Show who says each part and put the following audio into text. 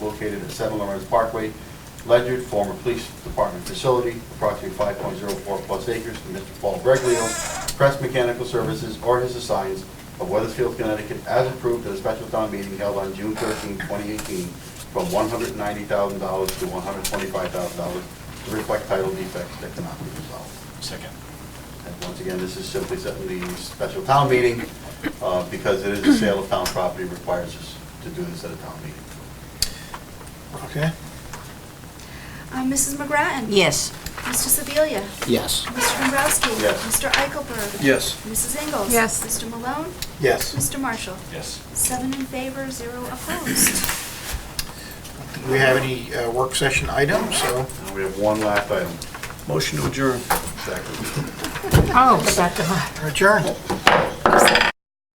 Speaker 1: located at 7 Lawrence Parkway, Ledyard, former police department facility, approximately 5.04 plus acres to Mr. Paul Breglio, Crest Mechanical Services, or his assigns of Weathersfield, Connecticut, as approved at a special town meeting held on June 13, 2018, from $190,000 to $125,000 to reflect title defects that cannot be resolved.
Speaker 2: Second.
Speaker 1: And once again, this is simply setting the special town meeting, uh, because it is a sale of town property requires us to do this at a town meeting.
Speaker 2: Okay.
Speaker 3: Uh, Mrs. McGrattan?
Speaker 4: Yes.
Speaker 3: Mr. Sebelia?
Speaker 5: Yes.
Speaker 3: Mr. Dombrowski?
Speaker 1: Yes.
Speaker 3: Mr. Eichelberg?
Speaker 2: Yes.
Speaker 3: Mrs. Ingles?
Speaker 4: Yes.
Speaker 3: Mr. Malone?
Speaker 2: Yes.
Speaker 3: Mr. Marshall?
Speaker 2: Yes.
Speaker 3: Seven in favor, zero opposed.
Speaker 2: Do we have any uh, work session items, so?
Speaker 1: And we have one last item.
Speaker 2: Motion to adjourn.
Speaker 1: Second.
Speaker 4: Oh, second.
Speaker 2: Adjourn.